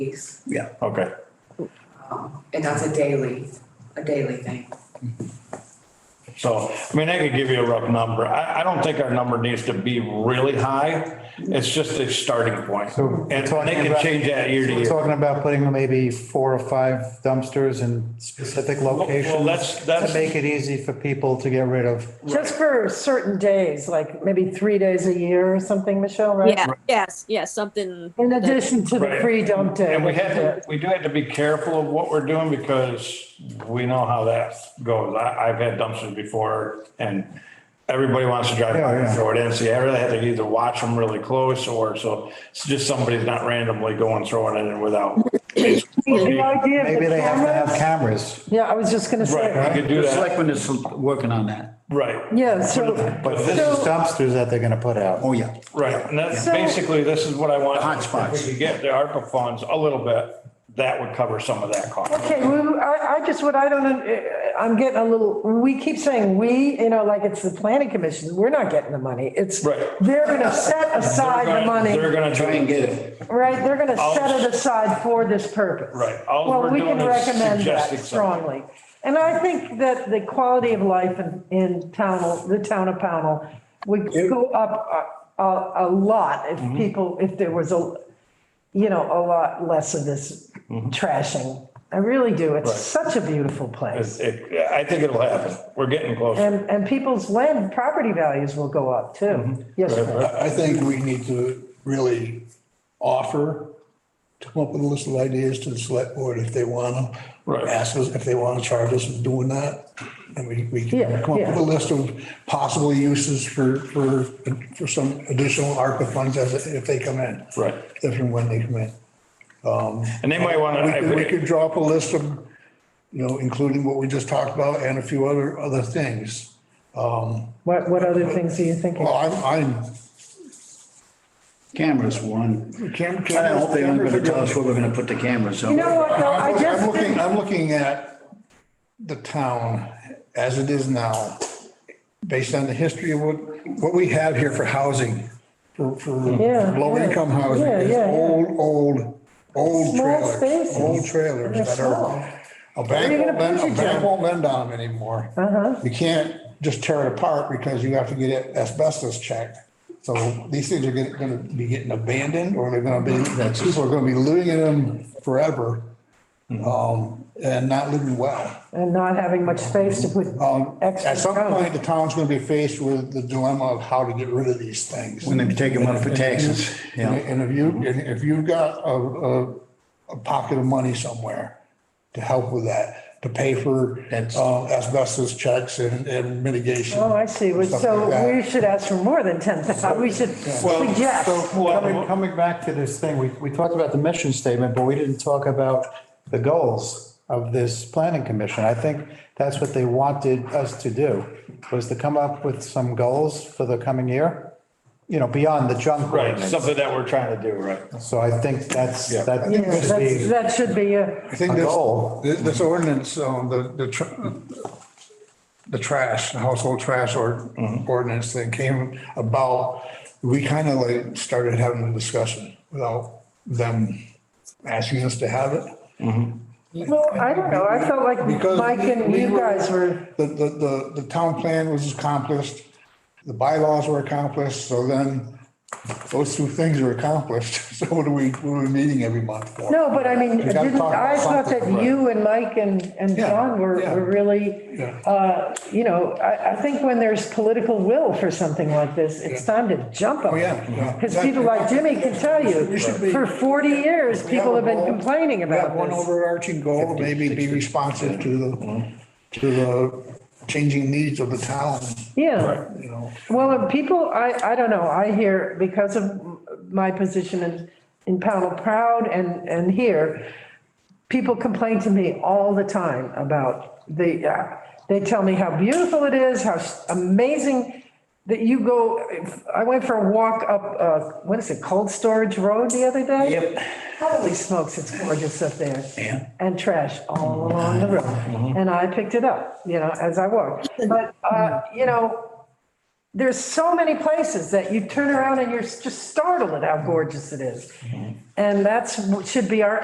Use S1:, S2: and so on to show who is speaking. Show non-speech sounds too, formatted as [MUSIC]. S1: fees.
S2: Okay,
S1: Um, And that's a daily, a daily thing.
S2: so, I mean, I could give you a rough number. I, I don't think our number needs to be really high. It's just a starting point.
S3: So
S2: And
S3: we're
S2: they
S3: talking
S2: can
S3: about-
S2: change that year to
S3: We're
S2: year.
S3: talking about putting maybe four or five dumpsters in specific locations.
S2: that's- that's-
S3: To make it easy for people to get rid of.
S4: Just for certain days, like maybe three days a year or something, Michelle, right?
S5: Yeah, yes, yes, something.
S4: In addition to the
S2: Right.
S4: free dump
S3: uh,
S4: day.
S2: And we
S4: which is
S2: have,
S4: it.
S2: to- we do have to be careful of what we're doing because we know how that goes. I, I've had dumpsters before and everybody wants to drive by
S3: Yeah,
S2: and
S3: yeah.
S2: throw it in. So you really have to either watch them really close or so it's just somebody's not randomly going throwing it in without.
S4: The idea of
S3: Maybe
S4: the
S3: they have to have
S4: cameras.
S3: cameras.
S4: Yeah, I was just gonna
S2: Right, we
S4: say,
S2: could do
S6: The
S2: that,
S6: selectmen is working on that.
S2: right.
S4: yeah, so.
S2: But this
S4: so-
S2: is
S3: Dumpsters that they're gonna put out.
S6: Oh, yeah.
S2: Right, and that's
S4: So-
S2: basically, this is what I want.
S6: The hot spots.
S2: If we could get the ARPA funds a little bit, that would cover some of that cost.
S4: Okay, well, I, I just, what I don't, un- eh, I'm getting a little, we keep saying we, you know, like it's the planning commission, we're not getting the money. It's,
S2: Right.
S4: they're gonna set aside the money,
S2: They're gonna
S6: Try and
S2: try,
S6: get it.
S4: right? They're gonna
S2: All-
S4: set it aside for this purpose.
S2: Right. All
S4: Well,
S2: we're
S4: we
S2: doing
S4: can
S2: is
S4: recommend
S2: suggesting
S4: that
S2: something.
S4: strongly. And I think that the quality of life in, in Pownell, the town of Pownell would go up a, a, a lot if
S2: Mm-hmm.
S4: people, if there was a, you know, a lot less of this
S2: Mm-hmm.
S4: trashing. I really do. It's such a beautiful place.
S2: it- I think it'll happen. We're getting close.
S4: And, and people's land property values will go up
S2: Mm-hmm.
S4: too. Yes, Fran.
S7: I think we need to really offer, to come up with a list of ideas to the select board if they want
S2: Right.
S7: to. Ask us if they want to charge us with doing that. And we, we
S4: Yeah,
S7: can come up
S4: yeah.
S7: with a list of possible uses for, for, for some additional ARPA funds as, if they come in.
S2: Right.
S7: If and when they come in.
S2: And they might wanna,
S7: We could, we
S2: I-
S7: could draw up a list of, you know, including what we just talked about and a few other, other things.
S4: what, what other things are you thinking?
S7: Well, I'm,
S6: Cameras, one.
S7: I'm. Cam-
S6: I hope they're
S7: cameras are
S6: gonna
S7: good.
S6: tell us where we're gonna put the cameras.
S4: You know what, though, I
S7: I'm look-
S4: just
S7: I'm
S4: think.
S7: looking, I'm looking at the town as it is now, based on the history of what, what we have here for housing, for, for
S4: Yeah,
S7: low
S4: yeah.
S7: income housing,
S4: Yeah,
S7: is
S4: yeah, yeah.
S7: old, old, old
S4: Small
S7: trailers.
S4: spaces.
S7: Old trailers
S4: They're
S7: that
S4: small.
S7: are, a
S4: Where are you
S7: bank won't
S4: gonna
S7: lend,
S4: put
S7: a
S4: your
S7: bank
S4: junk?
S7: won't lend on them anymore. You can't just tear it apart because you have to get it asbestos checked. So these things are gonna- gonna be getting abandoned or they're gonna be, people are gonna be living in them forever um, and not living well.
S4: And not having much space to put
S7: Um,
S4: extra.
S7: At some
S4: growth.
S7: point, the town's gonna be faced with the dilemma of how to get rid of these things.
S6: When they take them up for taxes, yeah.
S7: And if you, and if you've got a, a, a pocket of money somewhere to help with that, to pay for
S6: That's-
S7: uh, asbestos checks and, and mitigation.
S4: Oh, I see. Well,
S7: stuff
S4: So
S7: like that.
S4: we should ask for more than 10,000. We should
S3: So
S4: suggest.
S3: coming, coming back to this thing, we, we talked about the mission statement, but we didn't talk about the goals of this planning commission. I think that's what they wanted us to do, was to come up with some goals for the coming year, you know, beyond the junk
S2: right,
S3: ordinance.
S2: something that we're trying to do, right?
S3: So I think that's,
S2: Yeah.
S3: that
S4: Yeah,
S3: should
S4: that's-
S3: be,
S4: That should be, a-
S7: I think
S3: a
S7: this,
S3: goal.
S7: thi- this ordinance, um, the, the, tr- the trash, the household trash or
S3: Mm-hmm.
S7: ordinance thing came about, we kind of like started having a discussion without them asking us to have it.
S4: well, I don't know. I felt like
S7: Because
S4: Mike and
S7: we- we
S4: you guys were,
S7: The, the, the, the town plan was accomplished, the bylaws were accomplished, so then those two things are accomplished. [LAUGHS] So what are we, what are we meeting every month for?
S4: no, but I mean,
S7: We gotta
S4: didn't,
S7: talk about
S4: I thought that
S7: something, right.
S4: you and Mike and, and
S7: Yeah,
S4: John were,
S7: yeah.
S4: were really,
S7: Yeah.
S4: uh, you know, I, I think when there's political will for something like this, it's time to jump on
S7: Oh, yeah, yeah.
S4: it. Because people like Jimmy can tell you,
S7: We should be-
S4: for 40 years,
S7: We
S4: people
S7: a
S4: have been
S7: goal.
S4: complaining
S7: We have
S4: about
S7: One
S4: this. uh-huh.
S7: overarching goal, maybe be responsive to the, to the changing needs of the town,
S4: Yeah.
S7: you know.
S4: Well, and people, I, I don't know, I hear, because of my position in, in Pownell Proud and, and here, people complain to me all the time about the, uh, they tell me how beautiful it is, how amazing that you go, I went for a walk up, uh, what is it, Cold Storage Road the other day?
S6: Yep.
S4: Holy smokes, it's gorgeous up there.
S6: Yeah. Mm-hmm.
S4: And trash all along the road. And I picked it up, you know, as I walked. But, uh, you know, there's so many places that you turn around and you're just startled at how gorgeous it is. And that's, should be our